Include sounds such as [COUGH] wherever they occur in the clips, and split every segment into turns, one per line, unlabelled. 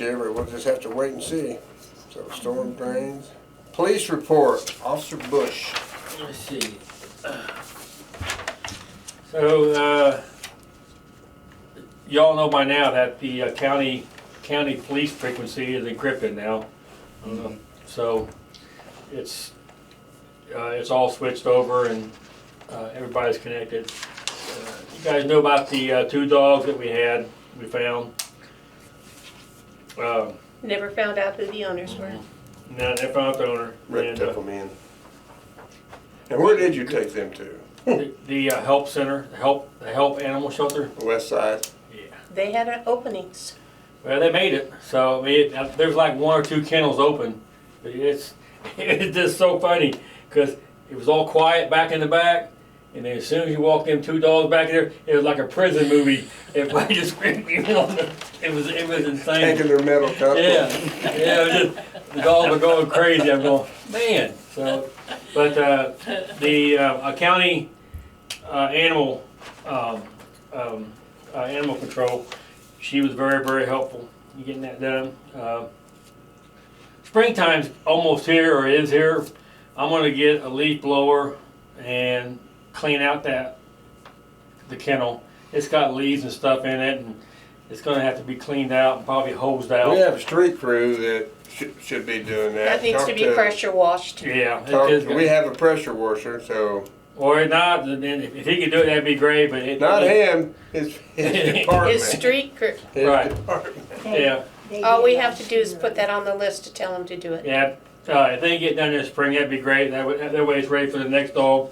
year, but we'll just have to wait and see. So storm drains. Police report, Officer Bush.
Let's see. So, uh, y'all know by now that the uh, county, county police frequency is encrypted now. Um, So, it's, uh, it's all switched over and, uh, everybody's connected. Uh, You guys know about the, uh, two dogs that we had, we found. Uh,
Never found out who the owners were.
now, they found the owner.
Rick
and, uh,
took them in. And where did you take them to?
The, the uh, help center, the help, the help animal shelter.
The west side?
Yeah.
They had uh, openings.
Well, they made it. So I mean, it, uh, there's like one or two kennels open. It's [LAUGHS] it's just so funny because it was all quiet back in the back, and then as soon as you walked in, two dogs back there, it was like a prison movie. [LAUGHS] Everybody just screaming on the. It was it was insane.
Taking their metal cup.
Yeah, yeah, it was just, the dogs were going crazy, I'm going, man, so, but, uh, the, uh, a county, uh, animal, um, um, uh, animal control, she was very, very helpful in getting that done. Uh, Springtime's almost here, or is here, I'm gonna get a leaf blower and clean out that, the kennel. It's got leaves and stuff in it, and it's gonna have to be cleaned out and probably hosed out.
We have a street crew that should, should be doing that.
That needs to
Talk
be pressure washed.
Yeah,
talk-
it is
we
good.
have a pressure washer, so
or not. Then if if he could do it, that'd be great. But it,
not
it,
him, his, [LAUGHS] his department.
His street crew.
His
Right.
department.
Yeah,
All we have to do is put that on the list to tell them to do it.
yeah. Uh, if they get done this spring, that'd be great. That, would, that way, it's ready for the next dog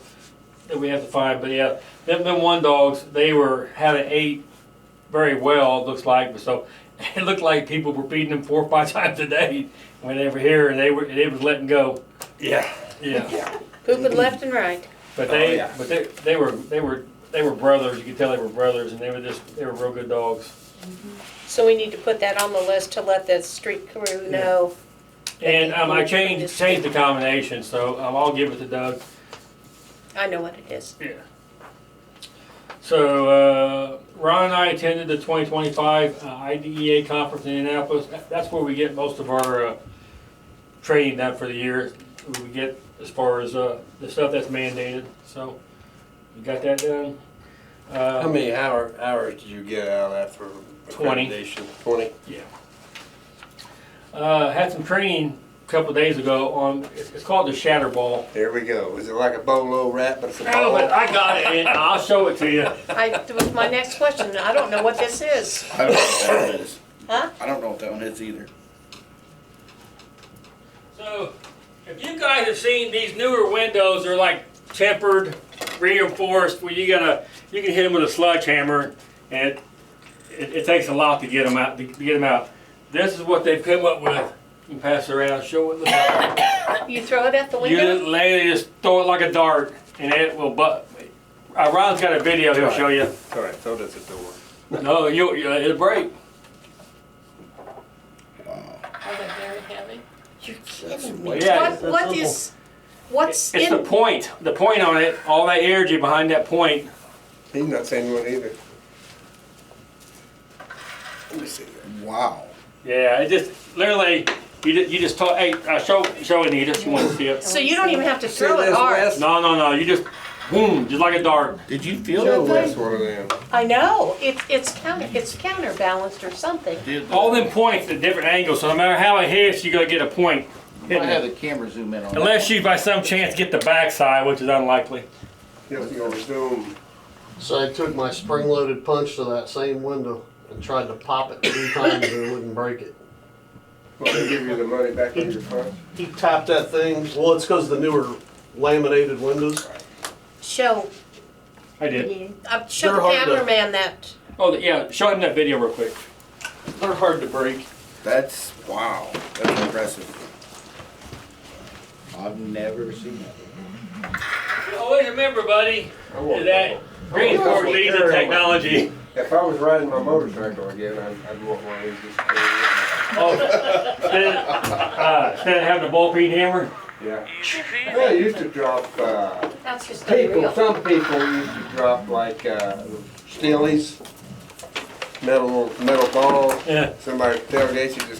that we have to find. But yeah, them, them one dogs, they were had an eight very well. it Looks like so. [LAUGHS] It looked like people were beating them four or five [LAUGHS] times a day when they were here, and they were they was letting go.
Yeah.
Yeah,
Pooping left and right.
but they
Oh, yeah.
but they, they were they were they were brothers. You could tell they were brothers, and they were just they were real good dogs.
So we need to put that on the list to let the street crew know.
And um, I changed, changed the combination, so um, I'll give it to Doug.
I know what it is.
Yeah. So uh, Ron and I attended the 2025 uh, IDEA conference in Indianapolis. That- That's where we get most of our uh, training done for the year. We get as far as uh, the stuff that's mandated. So we got that done. Uh,
How many hour, hours did you get out of that for?
Twenty.
accreditation? Twenty.
uh, had some training a couple days ago on it's it's called the Shatter Ball.
There we go. Is it like a bolo wrap, but it's a
Oh,
ball?
but I got it, and [LAUGHS] I'll show it to you.
I, that was my next question. I don't know what this is.
I don't know what that one is.
Huh?
I don't know what that one is either.
So, if you guys have seen these newer windows, they're like tempered, reinforced. Where you gotta, you can hit them with a sledgehammer, and it, it, it takes a lot to get them out. To get them out. This is what they come up with. You can pass it around,
[LAUGHS]
show it. Look at
You throw it out the
it. You
window?
lay it, just throw it like a dart, and it will. But uh, Ron's got a video he'll show you.
All right, so does the door.
No, you, you it'll break.
Are they very heavy?
You're
That's
kidding me.
way-
Yeah,
What, what is, what's
It's the
in,
point. The point on it. All that energy behind that point.
He's not saying one either. Let me see that.
Wow.
Yeah, it just literally you just, you just talk. Hey, uh, show show Anita. She wants to see it.
so you don't even have to
See
throw it
this
hard.
Wes?
No, no, no. You just boom, just like a dart.
Did you feel
Show
that
Wes
thing?
one of them.
I know, it's, it's counter, it's counterbalanced or something.
Did
All them points at different angles. So no matter how it hits, you are gonna get a point.
I had the camera zoom in on that
Unless you by some chance get the backside, which is unlikely.
Yes, you gonna zoom.
So I took my spring-loaded punch to that same window and tried to pop it three times and it wouldn't break it.
Well, they give you the money back in your pocket.
He tapped that thing, well, it's because the newer laminated windows.
Show,
I did.
uh, show
They're
the
hard to-
cameraman that.
Oh yeah, show him that video real quick.
They're hard to break.
one. That's wow. That's impressive. I've never seen that.
Always remember, buddy,
I want
that reinforced leads in technology.
If I was riding my motorcycle again, I'd, I'd want one of these. just to carry around.
Oh, [LAUGHS] instead, uh, instead of having a ball peen hammer.
Yeah. Well, I used to drop, uh,
That's just
people,
unreal.
some people used to drop like, uh, steelies, metal, metal balls.
Yeah.
Somebody tailgates you, just